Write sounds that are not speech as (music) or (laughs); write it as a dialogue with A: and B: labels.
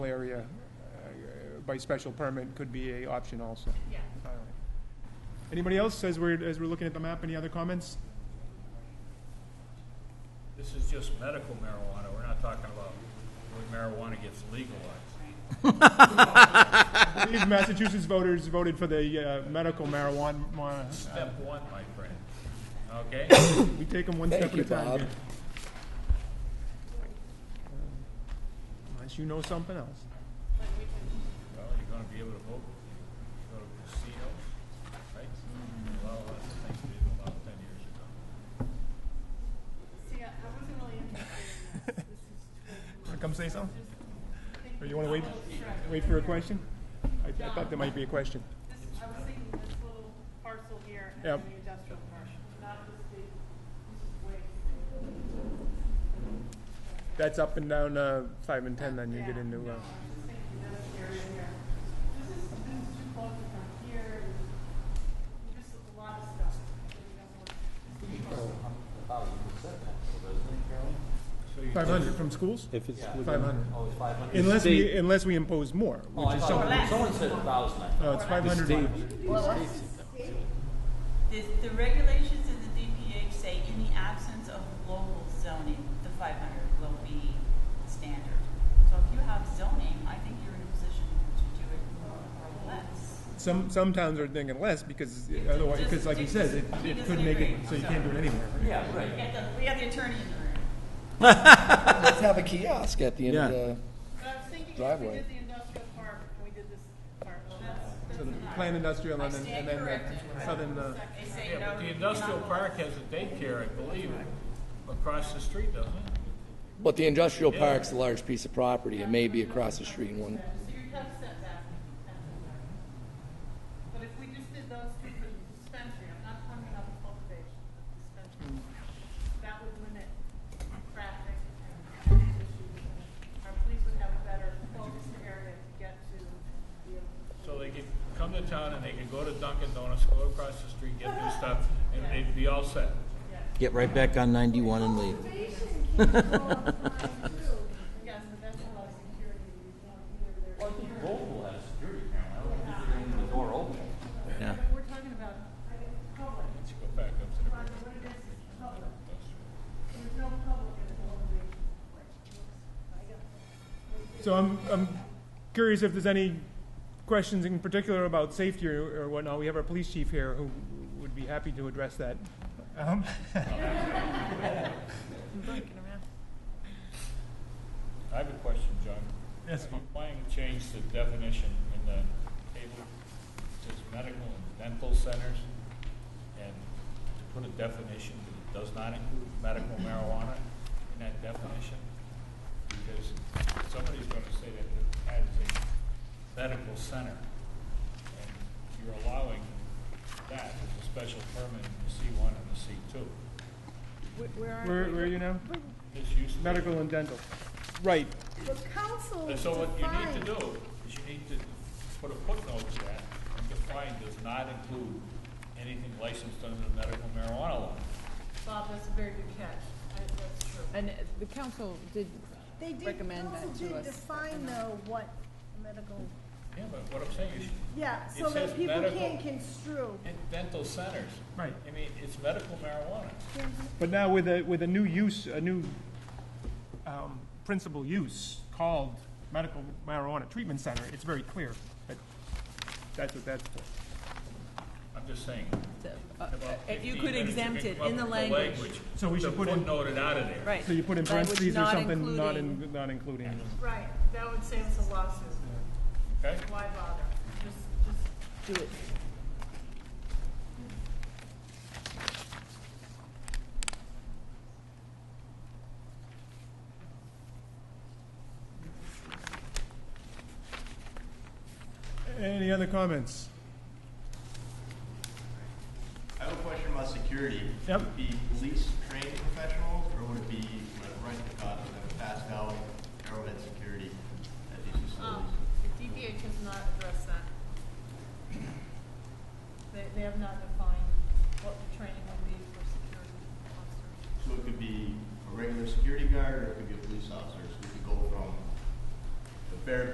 A: area uh, by special permit could be a option also. Yeah. Anybody else, as we're, as we're looking at the map, any other comments?
B: This is just medical marijuana, we're not talking about when marijuana gets legalized.
A: I believe Massachusetts voters voted for the uh, medical marijuana. marijuana.
B: Step one, my friend, okay?
A: We take them one
C: Thank
A: step at a
C: you,
A: time.
C: Bob.
A: here. Unless you know something else.
B: Well, you're gonna be able to vote, go to casinos, right? A lot of those things we didn't allow ten years ago.
D: See, I I wasn't really interested
A: (laughs)
D: in this. This is
A: Wanna come say something? Or you want to wait, wait for a question? I I thought there might be a question.
D: This, I was thinking this little parcel here and
A: Yep.
D: the industrial commercial, not just the,
A: That's up and down uh, 5 and 10, then you get into. uh,
D: thinking this area here. This is, this is too close to from here, and just a lot of stuff.
B: So you-
A: 500 from schools?
E: If it's within,
A: 500.
F: Oh, it's five hundred?
A: Unless we,
E: State.
A: unless we impose more,
F: Oh,
A: which
F: I
A: is
F: thought,
A: something.
F: someone said a thousand, I thought.
A: No, it's 500.
G: The, the regulations of the DPH say in the absence of local zoning, the five hundred will be standard. So if you have zoning, I think you're in a position to do it more or less.
A: Some, some towns are thinking less because otherwise, because like he says, it, it could make it, so you can't do it anywhere.
F: Yeah,
G: We
F: right.
G: got the, we got the attorney in the room.
C: Let's have a kiosk at the end of
E: Yeah.
C: the.
D: But I was thinking if we
C: Driveway.
D: did the industrial park, and we did this park, well, that's,
A: So the plan industrial and then, and then the southern, uh,
G: They say
B: Yeah,
G: no.
B: but the
G: you're
B: industrial
G: not
B: park has a daycare, I believe, across the street, doesn't it?
C: But the industrial park's a large piece of property. It may be across the street in one.
D: so you have setback. that's the park. But if we just did those two for the dispensary, I'm not talking about the cultivation, but the dispensary, that would limit traffic and issues. Our police would have a better focused area to get to the,
B: So they could come to town and they could go to Dunkin' Donuts, go across the street, get their stuff, and they'd be all set.
E: get right back on 91 and leave.
D: yes, but that's a lot of security. We want either there.
F: Well, I think Global has security camera, I don't think they're gonna leave the door open.
E: Yeah.
D: We're talking about public,
B: Let's go back up to the.
D: Roger, what it is, is public. There's no public in the cultivation. I got
A: so I'm, I'm curious if there's any questions in particular about safety or or whatnot. We have our police chief here who would be happy to address that. Um,
B: I have a question, John.
A: Yes.
B: Are you planning to change the definition in the table? It says medical and dental centers, and to put a definition that does not include medical marijuana in that definition? Because somebody's gonna say that it has a medical center, and you're allowing that as a special permit in the C one and the C two.
A: Where, where are you now?
B: This used to be-
A: Medical and dental. Right,
B: And so what you need to do is you need to put a footnote to that and define does not include anything licensed under the medical marijuana law.
D: Bob, that's a very good catch. I- That's true.
H: And uh, the council did
I: They did,
H: recommend that to
I: council did
H: us.
I: define though what medical,
B: Yeah, but what I'm saying is,
I: yeah,
B: It
I: so
B: says
I: that people
B: medical-
I: can't construe.
B: in dental centers.
A: Right.
B: I mean, it's medical marijuana.
A: But now with a, with a new use, a new um, principal use called medical marijuana treatment center, it's very clear that that's what that's for.
B: I'm just saying.
H: uh,
B: in about
H: if you
B: 15
H: could
B: minutes,
H: exempt
B: can
H: it
B: come
H: in the
B: up with
H: language.
A: So we
B: to
A: should put in-
B: Footnote it out of there.
H: Right.
A: So you put in
H: Language
A: parentheses or
H: not
A: something, not,
H: including-
A: in- not including.
D: Right, that would save us a lawsuit.
B: Okay?
D: Why bother? Just, just,
H: Do it.
A: Any other comments?
J: I have a question about security.
A: Yep.
J: Would it be police trained professionals, or would it be like Ryan Cotton, that passed out arrowhead security at these
D: um,
J: facilities?
D: the DPH has not addressed that. They, they have not defined what the training would be for security officers.
J: So it could be a regular security guard, or it could be a police officer, so we could go from the bare